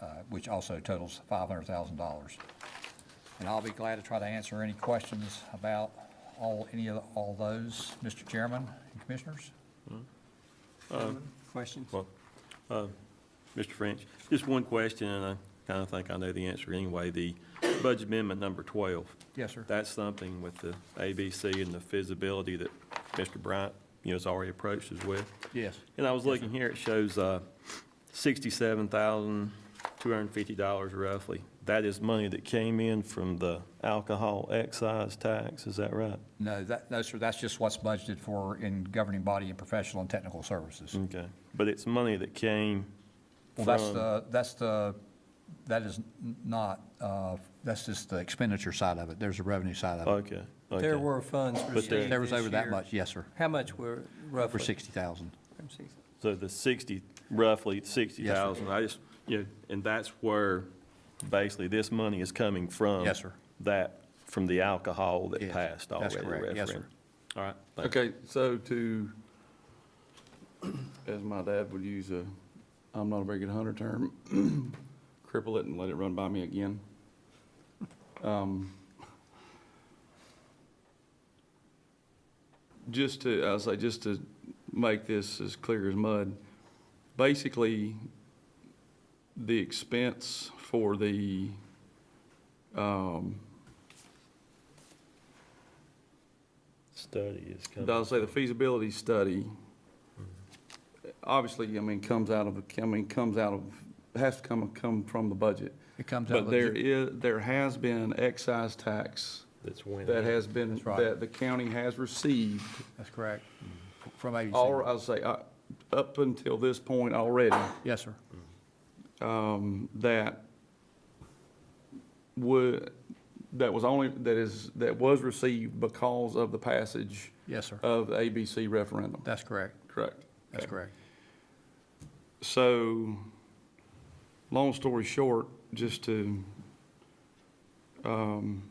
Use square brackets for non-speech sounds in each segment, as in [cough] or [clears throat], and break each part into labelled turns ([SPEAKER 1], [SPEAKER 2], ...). [SPEAKER 1] uh, which also totals $500,000. And I'll be glad to try to answer any questions about all, any of, all those, Mr. Chairman and Commissioners.
[SPEAKER 2] Questions?
[SPEAKER 3] Well, uh, Mr. French, just one question, and I kind of think I know the answer anyway. The budget amendment number 12,
[SPEAKER 1] Yes, sir.
[SPEAKER 3] that's something with the ABC and the feasibility that Mr. Bryant, you know, has already approached us with.
[SPEAKER 1] Yes.
[SPEAKER 3] And I was looking here, it shows uh, $67,250 roughly. That is money that came in from the alcohol excise tax, is that right?
[SPEAKER 1] No, that, no, sir, that's just what's budgeted for in governing body and professional and technical services.
[SPEAKER 4] Mm.
[SPEAKER 3] Okay. But it's money that came
[SPEAKER 1] Mm-hmm. Well, that's
[SPEAKER 3] from-
[SPEAKER 1] the, that's the, that is n- not, uh, that's just the expenditure side of it. There's a revenue side of it.
[SPEAKER 3] Okay,
[SPEAKER 2] There
[SPEAKER 3] okay.
[SPEAKER 2] were funds received
[SPEAKER 3] there-
[SPEAKER 1] There was
[SPEAKER 2] this
[SPEAKER 1] over that
[SPEAKER 2] year.
[SPEAKER 1] much, yes, sir,
[SPEAKER 2] How much were
[SPEAKER 1] over
[SPEAKER 2] roughly?
[SPEAKER 1] 60,000.
[SPEAKER 2] From 60.
[SPEAKER 3] So the 60, roughly 60,000, I just, you know, and that's where basically this money is coming from.
[SPEAKER 1] Yes, sir.
[SPEAKER 3] That, from the alcohol that
[SPEAKER 1] Yes,
[SPEAKER 3] passed
[SPEAKER 1] that's
[SPEAKER 3] already. the
[SPEAKER 1] correct. Yes, sir.
[SPEAKER 3] referendum. All right. thank you.
[SPEAKER 4] Okay, so to, as my dad would use a, I'm not a very good hunter term, [clears throat] cripple it and let it run by me again. Um, Just to, I'll say, just to make this as clear as mud, basically, the expense for the, um,
[SPEAKER 3] Study is coming.
[SPEAKER 4] I'll say the feasibility study, obviously, I mean, comes out of, I mean, comes out of, has to come, come from the budget.
[SPEAKER 1] It comes out
[SPEAKER 4] But
[SPEAKER 1] of
[SPEAKER 4] there
[SPEAKER 1] the,
[SPEAKER 4] is, there has been excise tax
[SPEAKER 3] That's when.
[SPEAKER 4] that has been,
[SPEAKER 1] That's right.
[SPEAKER 4] that the county has received,
[SPEAKER 1] that's correct, from ABC.
[SPEAKER 4] all, I'll say, uh, up until this point already,
[SPEAKER 1] Yes, sir.
[SPEAKER 4] um, that would, that was only, that is, that was received because of the passage
[SPEAKER 1] Yes, sir.
[SPEAKER 4] of the ABC referendum,
[SPEAKER 1] That's correct.
[SPEAKER 4] correct?
[SPEAKER 1] That's
[SPEAKER 4] Okay.
[SPEAKER 1] correct.
[SPEAKER 4] So, long story short, just to, um,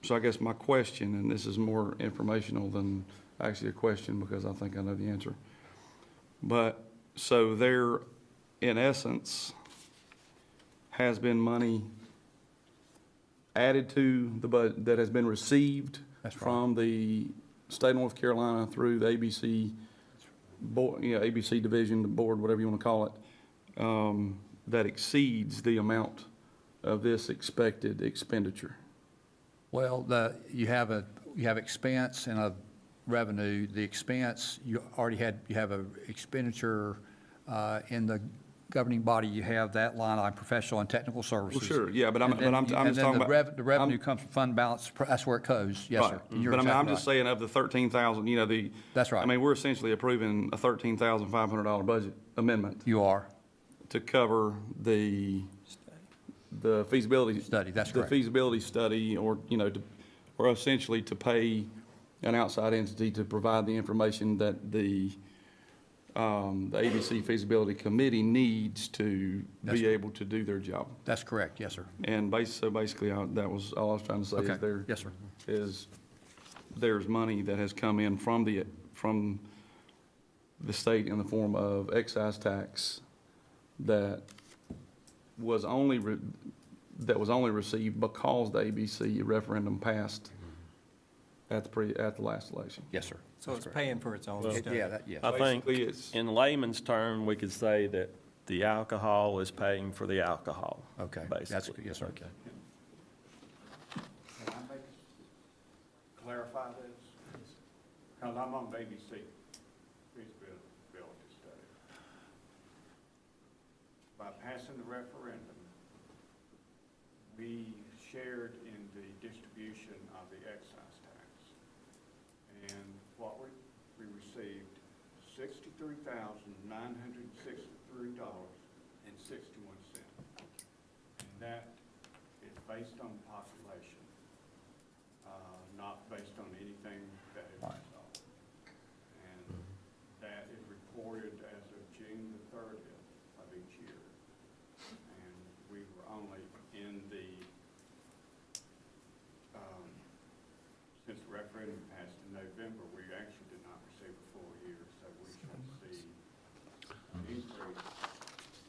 [SPEAKER 4] so I guess my question, and this is more informational than actually a question because I think I know the answer. But, so there, in essence, has been money added to the bud, that has been received
[SPEAKER 1] That's right.
[SPEAKER 4] from the state of North Carolina through the ABC board, you know, ABC division, the board, whatever you want to call it, um, that exceeds the amount of this expected expenditure.
[SPEAKER 1] Well, the, you have a, you have expense and a revenue. The expense, you already had, you have a expenditure uh, in the governing body, you have that line on professional and technical services.
[SPEAKER 4] sure, yeah, but I'm-
[SPEAKER 1] And then-
[SPEAKER 4] but I'm- I'm just
[SPEAKER 1] and then
[SPEAKER 4] talking
[SPEAKER 1] the
[SPEAKER 4] about-
[SPEAKER 1] rev- The revenue
[SPEAKER 4] I'm-
[SPEAKER 1] comes from fund balance, that's where it goes, yes, sir.
[SPEAKER 4] Right.
[SPEAKER 1] You're
[SPEAKER 4] But I mean, I'm
[SPEAKER 1] exactly
[SPEAKER 4] just
[SPEAKER 1] right.
[SPEAKER 4] saying of the thirteen thousand, you know, the.
[SPEAKER 1] That's right.
[SPEAKER 4] I mean, we're essentially approving a thirteen thousand five hundred dollar budget amendment
[SPEAKER 1] You are,
[SPEAKER 4] to cover the, the feasibility.
[SPEAKER 1] Study, that's correct.
[SPEAKER 4] The feasibility study or, you know, to, or essentially to pay an outside entity to provide the information that the, um, the ABC feasibility committee needs to
[SPEAKER 1] That's-
[SPEAKER 4] be able to do their job.
[SPEAKER 1] that's correct, yes, sir.
[SPEAKER 4] And bas, so basically, I- that was, all I was trying to say
[SPEAKER 1] Okay.
[SPEAKER 4] is there.
[SPEAKER 1] Yes, sir.
[SPEAKER 4] Is, there's money that has come in from the, from the state in the form of excise tax that was only, re- that was only received because the ABC referendum passed at the pre, at the last election.
[SPEAKER 1] Yes, sir.
[SPEAKER 2] So it's paying for its own stuff.
[SPEAKER 1] Yeah, that, yes.
[SPEAKER 3] I think,
[SPEAKER 4] Basically, it's-
[SPEAKER 3] in layman's term, we could say that the alcohol is paying for the alcohol.
[SPEAKER 1] Okay, that's-
[SPEAKER 3] Basically.
[SPEAKER 1] yes, sir.
[SPEAKER 3] Okay.
[SPEAKER 5] Can I make, clarify this? Because I'm on BBC, feasibility study. By passing the referendum, we shared in the distribution of the excise tax. And what we, we received sixty-three thousand, nine hundred and sixty-three dollars and sixty-one cents. And that is based on population, uh, not based on anything um,